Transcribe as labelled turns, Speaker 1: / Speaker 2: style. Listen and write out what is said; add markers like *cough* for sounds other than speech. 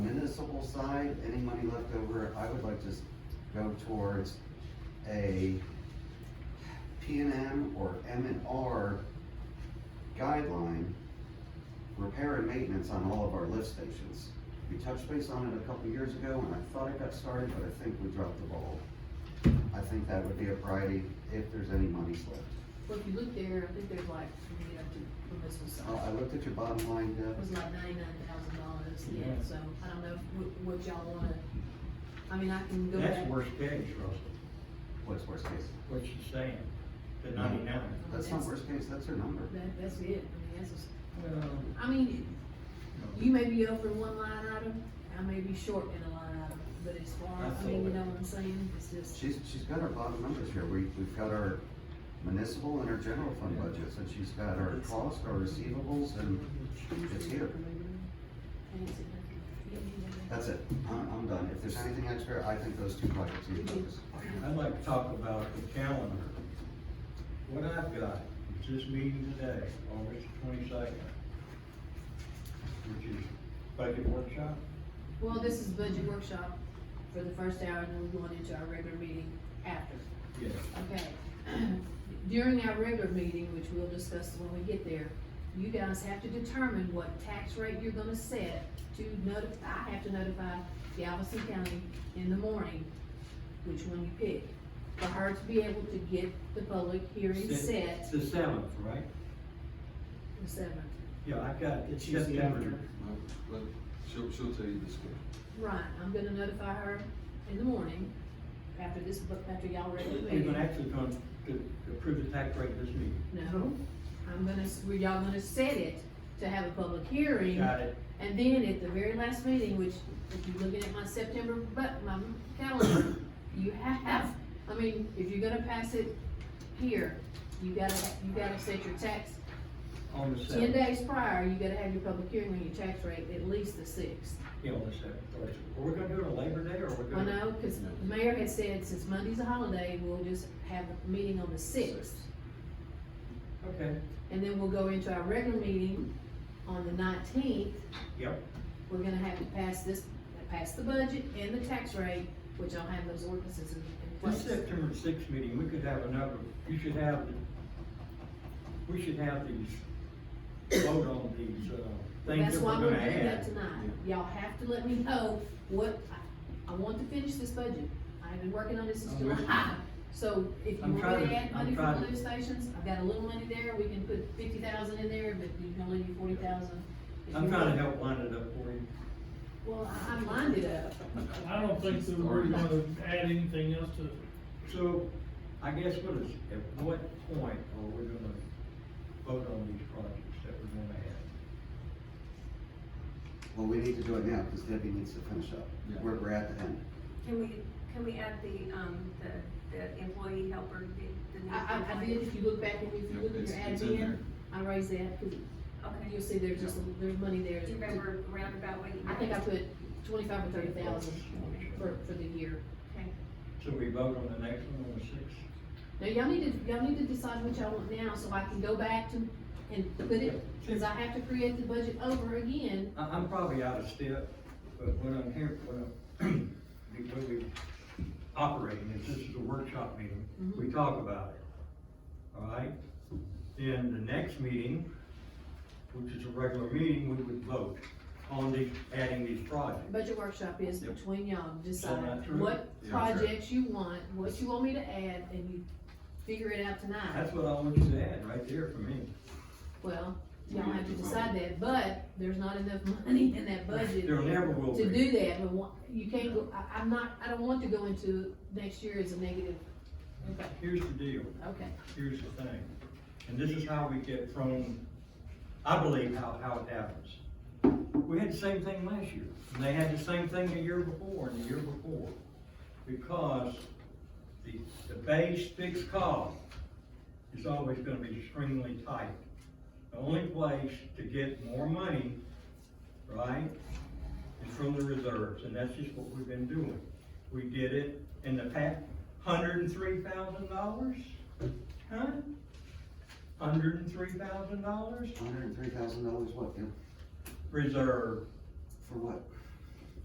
Speaker 1: festival side, any money left over, I would like to s- go towards a P and M or M and R guideline, repair and maintenance on all of our lift stations. We touched base on it a couple of years ago, and I thought it got started, but I think we dropped the ball. I think that would be a priority if there's any money left.
Speaker 2: Well, if you look there, I think there's like, when you get up to the missile
Speaker 1: Oh, Uh, I, I
Speaker 2: side,
Speaker 1: looked at your bottom line, Deb.
Speaker 2: it was like ninety-nine thousand dollars, yeah,
Speaker 3: Yeah.
Speaker 2: so I don't know if- what, what y'all wanna, I mean, I can go back.
Speaker 3: That's worst case, Russell,
Speaker 1: What's worst case?
Speaker 3: what you saying, the ninety-nine.
Speaker 1: That's not worst case, that's her number.
Speaker 2: That, that's it, I mean, that's, a-
Speaker 3: Well,
Speaker 2: I mean, you may be over one line item, I may be short in a line item, but as far, I mean, you know what I'm saying, it's just,
Speaker 1: She's, she's got our bottom numbers here, we, we've got our municipal and our general fund budgets, and she's got our cost, our receivables, and it's here. That's it, I'm, I'm done, if there's anything extra, I think those two buckets need focus.
Speaker 3: I'd like to talk about the calendar. What I've got is this meeting today, August twenty-second, which is budget workshop.
Speaker 2: well, this is budget workshop for the first hour, and then we're going into our regular meeting after.
Speaker 3: Yes.
Speaker 2: Okay, *clears throat* during our regular meeting, which we'll discuss when we get there, you guys have to determine what tax rate you're gonna set to notify, I have to notify Galveston County in the morning, which one you pick, for her to be able to get the public hearing set,
Speaker 3: The seventh, right?
Speaker 2: the seventh.
Speaker 3: Yeah, I've got
Speaker 4: It's usually
Speaker 3: September.
Speaker 4: after.
Speaker 5: Well, well, she'll, she'll tell you this schedule.
Speaker 2: Right, I'm gonna notify her in the morning, after this, but after y'all regular
Speaker 3: We're
Speaker 2: meeting.
Speaker 3: gonna actually gonna to approve the tax rate this meeting.
Speaker 2: No, I'm gonna, s- we y'all gonna set it to have a public hearing.
Speaker 3: Got it?
Speaker 2: And then at the very last meeting, which, if you're looking at my September, but my calendar, you have, I mean, if you're gonna pass it here, you gotta, you gotta set your tax,
Speaker 3: On the
Speaker 2: ten
Speaker 3: seventh.
Speaker 2: days prior, you gotta have your public hearing on your tax rate at least the sixth.
Speaker 3: Yeah, on the seventh. Are we gonna do it on Labor Day or we're
Speaker 2: I
Speaker 3: gonna?
Speaker 2: know, cause the mayor has said since Monday's a holiday, we'll just have a meeting on the sixth.
Speaker 3: Okay,
Speaker 2: And then we'll go into our regular meeting on the nineteenth,
Speaker 3: yep.
Speaker 2: we're gonna have to pass this, pass the budget and the tax rate, which I'll have those ordinances in in
Speaker 3: This
Speaker 2: place.
Speaker 3: September sixth meeting, we could have another, you should have, the- we should have these, vote on these, uh, things
Speaker 2: That's
Speaker 3: that we're
Speaker 2: why we're
Speaker 3: gonna
Speaker 2: doing that
Speaker 3: add.
Speaker 2: tonight. Y'all have to let me know what, I- I want to finish this budget. I've been working on this since
Speaker 3: I'm with you.
Speaker 2: July. So if you
Speaker 3: I'm
Speaker 2: want
Speaker 3: trying
Speaker 2: to
Speaker 3: to-
Speaker 2: add
Speaker 3: I'm
Speaker 2: money for
Speaker 3: trying
Speaker 2: the
Speaker 3: to-
Speaker 2: lift stations, I've got a little money there, we can put fifty thousand in there, but you can only do forty thousand.
Speaker 3: I'm trying to help line it up for you.
Speaker 2: Well, I- I'm minded up.
Speaker 6: I don't think that we're gonna add anything else to,
Speaker 3: So, I guess what is, at what point are we gonna vote on these projects that we're gonna add?
Speaker 1: Well, we need to do it now, because Debbie needs to finish up,
Speaker 5: Yeah.
Speaker 1: we're, we're at the end.
Speaker 7: Can we, can we add the, um, the, the employee helper, the, the new?
Speaker 2: I, I, I did, if you look back and if you
Speaker 5: Yep,
Speaker 2: look at
Speaker 5: it's-
Speaker 2: your
Speaker 5: it's
Speaker 2: ad
Speaker 5: in
Speaker 2: in, I raised that, because
Speaker 7: Okay,
Speaker 2: you'll see there's just, there's money there.
Speaker 7: do you remember roundabout what you?
Speaker 2: I think I put twenty-five or thirty thousand for, for the year.
Speaker 3: So we vote on the next one on the sixth?
Speaker 2: Now, y'all need to, y'all need to decide what y'all want now, so I can go back to, and put it, cause I have to create the budget over again.
Speaker 3: I, I'm probably out of step, but what I'm here, what I'm, *clears throat* the way we operating is this is a workshop meeting, we talk about it. All right? Then the next meeting, which is a regular meeting, we would vote on the, adding these projects.
Speaker 2: Budget workshop is
Speaker 3: Yep.
Speaker 2: between y'all,
Speaker 3: not
Speaker 2: decide
Speaker 3: true.
Speaker 2: what
Speaker 5: Yeah, that's right.
Speaker 2: projects you want, what you want me to add, and you figure it out tonight.
Speaker 3: That's what I want you to add right there for me.
Speaker 2: Well,
Speaker 5: We
Speaker 2: y'all
Speaker 5: need
Speaker 2: have to
Speaker 5: to vote.
Speaker 2: decide that, but there's not enough *laughs* money in that budget
Speaker 3: There never will
Speaker 2: to
Speaker 3: be.
Speaker 2: do that, but one- you can't go, I, I'm not, I don't want to go into next year as a negative. Okay,
Speaker 3: Here's the deal.
Speaker 2: okay.
Speaker 3: here's the thing, and this is how we get from, I believe how, how it happens. We had the same thing last year, and they had the same thing the year before and the year before, because the, the base fixed cost is always gonna be extremely tight. The only place to get more money, right, is from the reserves, and that's just what we've been doing. We did it in the past, hundred and three thousand dollars? Huh? Hundred and three thousand dollars
Speaker 1: Hundred and three thousand dollars, what, Deb?
Speaker 3: reserve
Speaker 1: For what?